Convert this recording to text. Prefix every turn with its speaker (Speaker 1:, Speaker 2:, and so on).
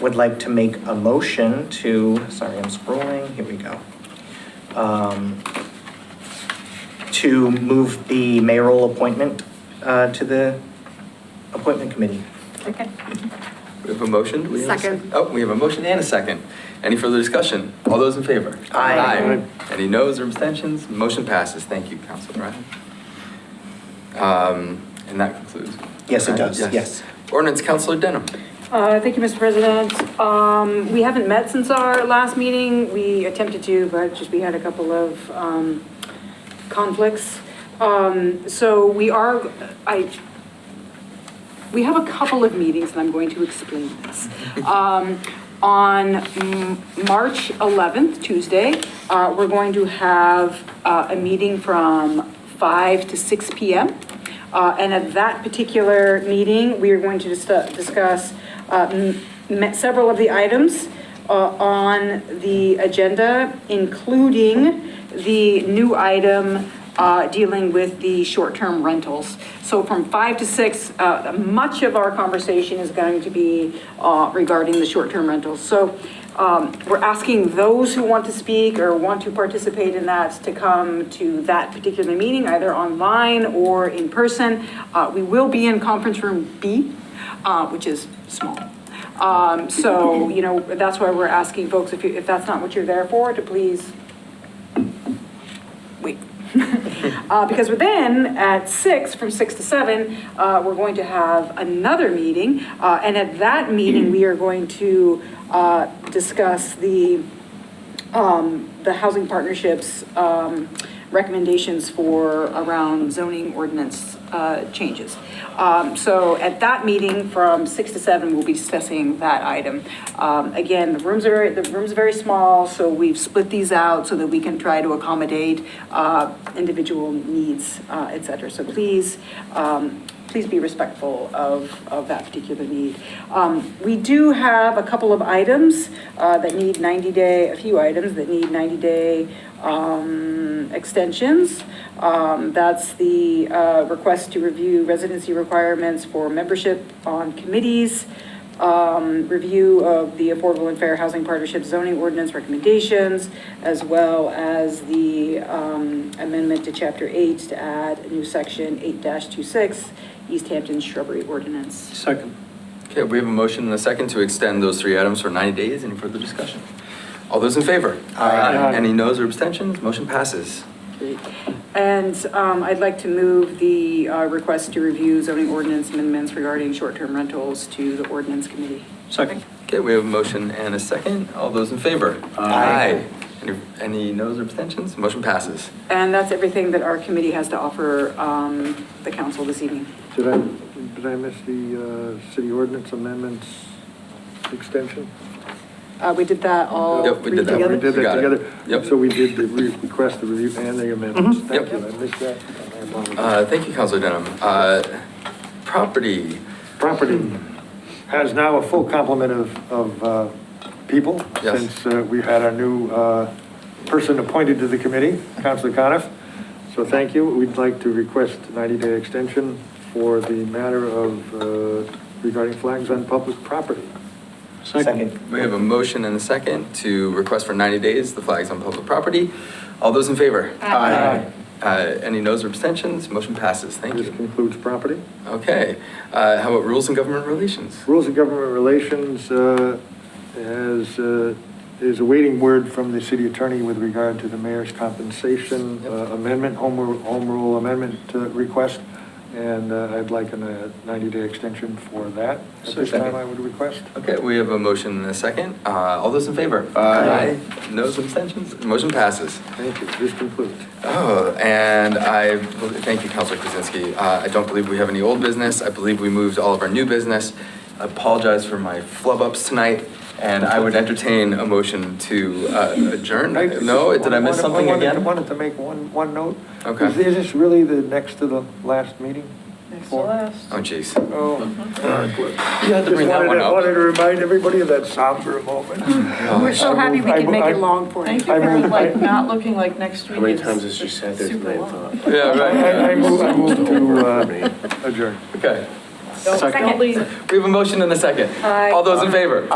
Speaker 1: would like to make a motion to, sorry, I'm scrolling, here we go. Um, To move the mayoral appointment uh, to the appointment committee.
Speaker 2: Second.
Speaker 3: We have a motion? Do we have a
Speaker 2: Second.
Speaker 3: Oh, we have a motion and a second. Any further discussion? All those in favor?
Speaker 1: Aye.
Speaker 3: Any noes or abstentions? Motion passes. Thank you, Council Bryant. Um, And that concludes.
Speaker 1: Yes, it
Speaker 3: Right?
Speaker 1: does, yes.
Speaker 3: Ordinance, Councilor Denham.
Speaker 4: Uh, Thank you, Mr. President. Um, We haven't met since our last meeting. We attempted to, but just we had a couple of um, conflicts. Um, So we are, I, we have a couple of meetings, and I'm going to explain this. Um, On mm, March 11th, Tuesday, uh, we're going to have uh, a meeting from 5 to 6 PM. Uh, And at that particular meeting, we are going to dis- discuss uh, m- me- several of the items uh, on the agenda, including the new item uh, dealing with the short-term rentals. So from five to six, uh, much of our conversation is going to be uh, regarding the short-term rentals. So um, we're asking those who want to speak or want to participate in that to come to that particular meeting, either online or in person. Uh, We will be in conference room B, uh, which is small. Um, so, you know, that's why we're asking folks, if you, if that's not what you're there for, to please wait. Uh, because then, at six, from six to seven, uh, we're going to have another meeting. Uh, and at that meeting, we are going to, uh, discuss the, um, the housing partnerships, um, recommendations for around zoning ordinance, uh, changes. Um, so at that meeting from six to seven, we'll be discussing that item. Um, again, the rooms are, the room's very small, so we've split these out so that we can try to accommodate, uh, individual needs, uh, et cetera. So please, um, please be respectful of, of that particular need. Um, We do have a couple of items uh, that need 90-day, a few items that need 90-day um, extensions. Um, That's the uh, request to review residency requirements for membership on committees, um, review of the Affordable and Fair Housing Partnership zoning ordinance recommendations, as well as the um, amendment to Chapter 8 to add a new section 8-26, East Hampton shrubbery ordinance.
Speaker 5: Second.
Speaker 3: Okay, we have a motion and a second to extend those three items for 90 days. Any further discussion? All those in favor?
Speaker 5: Aye.
Speaker 3: Any noes or abstentions? Motion passes.
Speaker 4: And um, I'd like to move the uh, request to review zoning ordinance amendments regarding short-term rentals to the ordinance committee.
Speaker 5: Second.
Speaker 3: Okay, we have a motion and a second. All those in favor?
Speaker 5: Aye.
Speaker 3: Any- Any noes or abstentions? Motion passes.
Speaker 4: And that's everything that our committee has to offer um, the council this evening.
Speaker 6: Did I, did I miss the uh, city ordinance amendments extension?
Speaker 4: Uh, We did that all
Speaker 3: Yep, we
Speaker 4: three
Speaker 3: did that.
Speaker 4: together.
Speaker 6: We did
Speaker 3: You
Speaker 6: that
Speaker 3: got it.
Speaker 6: together.
Speaker 3: Yep. Mm-hmm.
Speaker 6: So we did the re- request, the review, and the amendments. Thank
Speaker 3: Yep.
Speaker 6: you, I missed that. I apologize.
Speaker 3: Uh, Thank you, Counselor Denham. Uh, Property,
Speaker 6: Property has now a full complement of, of uh, people.
Speaker 3: Yes.
Speaker 6: Since uh, we had our new uh, person appointed to the committee, Counselor Coniff. So thank you. We'd like to request 90-day extension for the matter of uh, regarding flags on public property.
Speaker 1: Second.
Speaker 3: we have a motion and a second to request for 90 days the flags on public property. All those in favor?
Speaker 6: Aye.
Speaker 3: Uh, Any noes or abstentions? Motion passes. Thank
Speaker 6: This
Speaker 3: you.
Speaker 6: concludes property.
Speaker 3: Okay, Uh, how about rules and government relations?
Speaker 6: Rules of Government Relations uh, has, uh, is awaiting word from the city attorney with regard to the mayor's compensation uh,
Speaker 3: Yep.
Speaker 6: amendment, home rule, home rule amendment uh, request, and uh, I'd like a 90-day extension for that. At this
Speaker 3: Second.
Speaker 6: time, I would request.
Speaker 3: Okay, we have a motion and a second. Uh, All those in favor?
Speaker 6: Aye.
Speaker 3: Noes, abstentions? Motion passes.
Speaker 6: Thank you, this concludes.
Speaker 3: Oh, and I, thank you, Counselor Kuzinski. Uh, I don't believe we have any old business. I believe we moved all of our new business. I apologize for my flub ups tonight, and I would entertain a motion to uh, adjourn. No, did I miss something
Speaker 6: wanted- I
Speaker 3: again?
Speaker 6: wanted to make one, one note.
Speaker 3: Okay.
Speaker 6: Is is this really the next to the last meeting?
Speaker 2: Next to
Speaker 6: Four.
Speaker 2: last.
Speaker 3: Oh, jeez.
Speaker 6: Oh.
Speaker 3: You had to bring that one
Speaker 6: I wanted to
Speaker 3: up. Oh.
Speaker 6: remind everybody of that somber moment.
Speaker 4: We're so happy we could make it long for you.
Speaker 2: Thank you
Speaker 6: I
Speaker 2: for
Speaker 6: moved-
Speaker 2: like
Speaker 6: I-
Speaker 2: not looking like next week.
Speaker 7: How many
Speaker 2: is
Speaker 7: times has she said this
Speaker 2: super
Speaker 7: and I
Speaker 2: long.
Speaker 7: thought?
Speaker 3: Yeah,
Speaker 6: I I
Speaker 3: right.
Speaker 6: move, I move to uh, adjourn.
Speaker 3: Okay.
Speaker 2: Don't- Don't leave.
Speaker 3: We have a motion and a second.
Speaker 4: Aye.
Speaker 3: All those in favor?